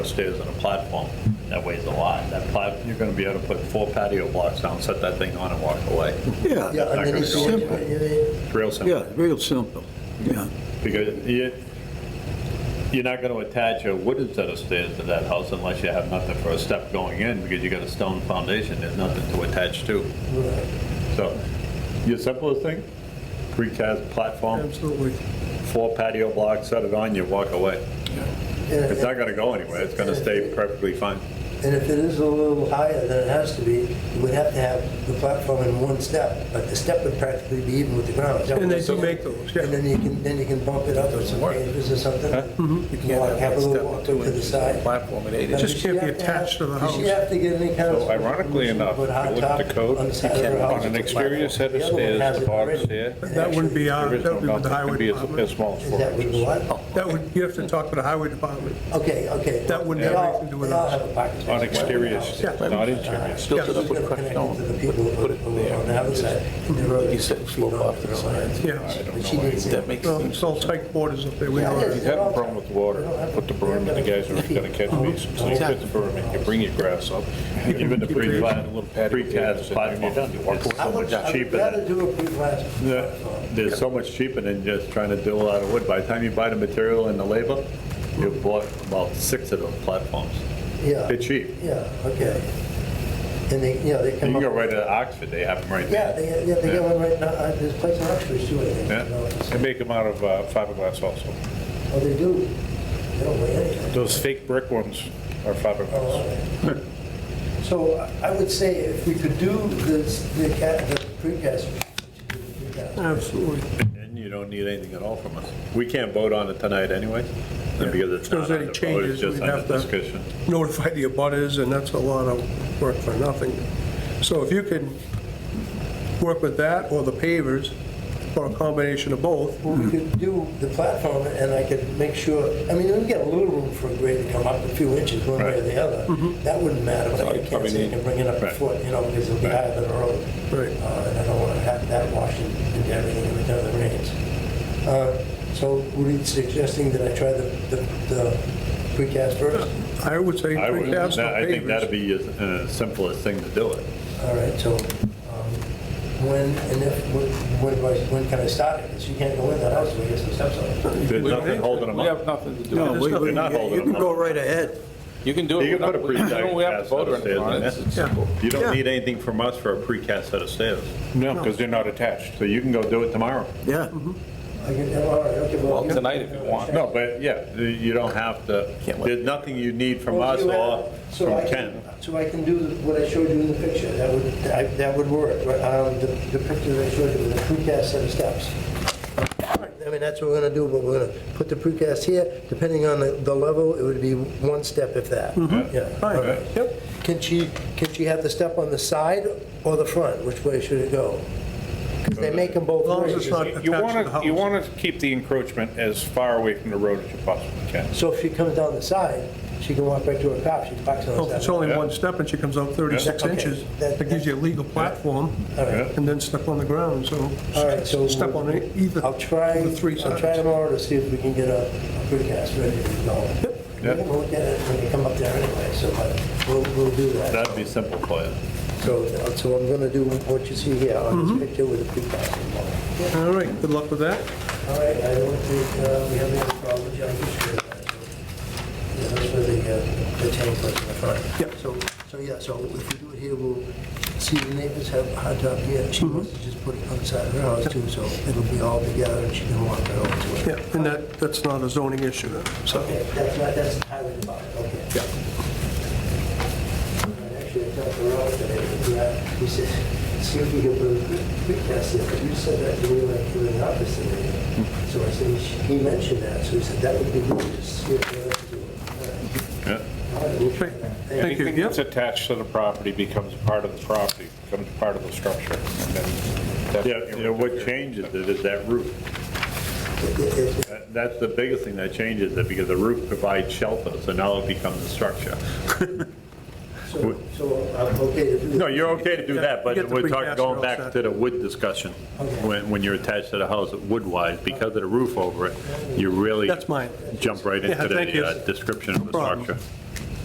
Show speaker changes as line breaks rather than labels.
upstairs on a platform that weighs a lot. That plat, you're gonna be able to put four patio blocks down, set that thing on and walk away. I
Yeah, I
mean,
mean,
it's
it's
simple.
simple.
It's Real simple.
Yeah, real simple, yeah.
Because you, you're not gonna attach a wooden set of stairs to that house unless you have nothing for a step going in, because you got a stone foundation, there's nothing to attach to. So, your simplest thing, precast platform,
Absolutely.
four patio blocks, set it on, you walk away.
And-
It's not gonna go anywhere, it's gonna stay perfectly fine.
And if it is a little higher than it has to be, you would have to have the platform in one step, but the step would practically be even with the ground. Is that what
And they
you're
do
saying?
make those,
And
yeah.
then you can, then you can bump it up with some pages or something.
Mm-hmm.
You can walk, have a little walk to the side.
Platform at eight
Now,
It just
inches.
does she
can't be
have have-
attached to the
Does she
house.
have to get any kind of...
So ironically
permission to
enough,
put
if
hot
you look at
top
the code,
on the side of her house?
On an exterior set of
The other one has
stairs, the
it
bottom
already.
stair.
And
That wouldn't be our-
There is
that
no
would be with the
nothing,
highway
could be as-
department.
As small as
Is
four
that with
inches.
what?
That would, you have to talk to the highway department.
Okay, okay.
That wouldn't
They
have
all-
anything to do with
They all
us.
have a parking space. Uh,
On exterior stairs,
Yeah.
not interior.
Built it up with crushed
Connected to
stone.
the people
Put it
who are on the
there.
other side.
You said slope off to the side.
Yeah.
But she needs it.
That makes
Well,
sense.
It's all tight quarters up there. We know
If
that.
you have a problem with water, put the broom in the geyser, you got a catch basin, so you put the broom in, you bring your grass up, Oh, even the
Pre-
pre a little patio.
Precast platform,
You walk
it's
I
so
would,
much
I would
cheaper than.
rather do a pre-plant.
Yeah, There's so much cheaper than just trying to do a lot of wood. By the time you buy the material and the labor, you've bought about six of those platforms.
Yeah.
They're cheap.
Yeah, okay. And they, you know, they
You
come
can
up.
go right to Oxford, they have them right
Yeah,
there.
they, yeah, they got one right now, uh, there's place in Oxford too, I think. you know,
Yeah,
it's-
and make them out of uh, fiberglass also.
Oh, they do, they don't weigh anything.
Those fake brick ones are
Oh, all
fiberglass.
right. So I would say if we could do this, the cat, the precast. we should do the precast.
Absolutely.
And you don't need anything at all from us. We can't vote on it tonight anyway, and because it's
If there's
not under
any
vote, it's
changes,
just
we'd
under
have to-
discussion.
Notify the abutters, and that's a lot of work for nothing. So if you can work with that or the pavers, or a combination of both,
Well, we could do the platform, and I could make sure, I mean, we get a little room for a grade to come up a few inches one way or the other. That wouldn't matter, but I can't say you can bring it up a
Right.
foot, you know, because it'll be higher than the road.
Right.
Uh, And I don't want to have that washing and everything every time it rains. Uh, So were you suggesting that I try the, the- the precast first?
I would say
I would,
precast or
I think that'd
pavers.
be the simplest thing to do it.
All right, so um, when, and if, when, when do I- when can I start it? Because you can't go in that house till we get some steps on it.
There's nothing holding them
We have
up.
nothing to do.
No,
with it.
we-
nothing-
Oh,
you're not holding
we- you can
them
go
up.
right ahead.
You can do it.
You can
without-
put a
we don't- We have
precast
to
set
vote
of
or anything
stairs
on
in
it.
there.
It's simple.
You don't
Yeah.
need anything from us for a precast set of stairs.
No, because they're not attached.
So you can go do it tomorrow.
Yeah,
Mm-hmm.
I can, all right, okay, well.
Well, tonight if you want.
No, but yeah, you don't have to,
Can't wait.
there's nothing you need from
Well,
us
if you
or
have- so I
from Ken.
So I can do what I showed you in the picture, that would, I- that would work, but, um, the the picture that I showed you with the precast set of steps. I mean, that's what we're gonna do, but we're gonna put the precast here, depending on the, the level, it would be one step if that. Yeah, all right.
Mm-hmm. Yep.
Can she, can she have the step on the side or the front, which way should it go? Because they make them both
As long as
ways.
it's not attached
You
to the
want
house.
to, you want to keep the encroachment as far away from the road as you possibly can.
So if she comes down the side, she can walk right to her car, she parks on the
Well,
side.
Oh, If it's only one step and she comes out 36
Yeah. Okay.
inches,
That-
that gives you a legal platform,
All right.
and then step on the ground, so
All right, so.
step on it either,
I'll try,
the three
I'll try
sides.
tomorrow to see if we can get a a precast ready to go. We're gonna look at it when we come up there anyway, so but we'll, we'll do that.
That'd be simple for you.
So, so I'm gonna do what you see here on
Mm-hmm.
this picture with the precast. tomorrow.
All right, good luck with that.
All right, I don't think uh, we have any problems, yeah, I'm just uh, sure. that. Yeah, that's where the, uh, the tank was in the front.
Yep.
So, so yeah, so if we do it here, we'll see the neighbors have a hot tub here. She
Mm-hmm.
wants to just put it on the side of her house too, so it'll be all together and she can walk it over to it.
Yeah, and that, that's not a zoning issue, so.
Okay, that's not, that's the highway department, okay. Yeah. Actually, I talked to Rob today, and, uh, he said, see if we can put a quick test in, but you said that you were like doing the opposite. So I said, he mentioned that, so he said, that would be good, just see if we have to do it.
Yeah.
All right, we'll try that.
Thank you.
Anything that's attached to the property becomes part of the property, becomes part of the structure. and then that's-
Yeah, you know, what changes it is that roof.
It- it- it-
That- That's the biggest thing that changes it, because the roof provides shelter, so now it becomes a structure.
So, so I'm okay to do that.
No, you're okay to do that,
Get
but
the
we're talking,
precast
going
all
back
set.
to the wood discussion.
Okay.
When, when you're attached to the house wood-wise, because of the roof over it, you really.
That's mine.
Jump right
Yeah,
into
thank you.
the uh, description of the
problem.
structure.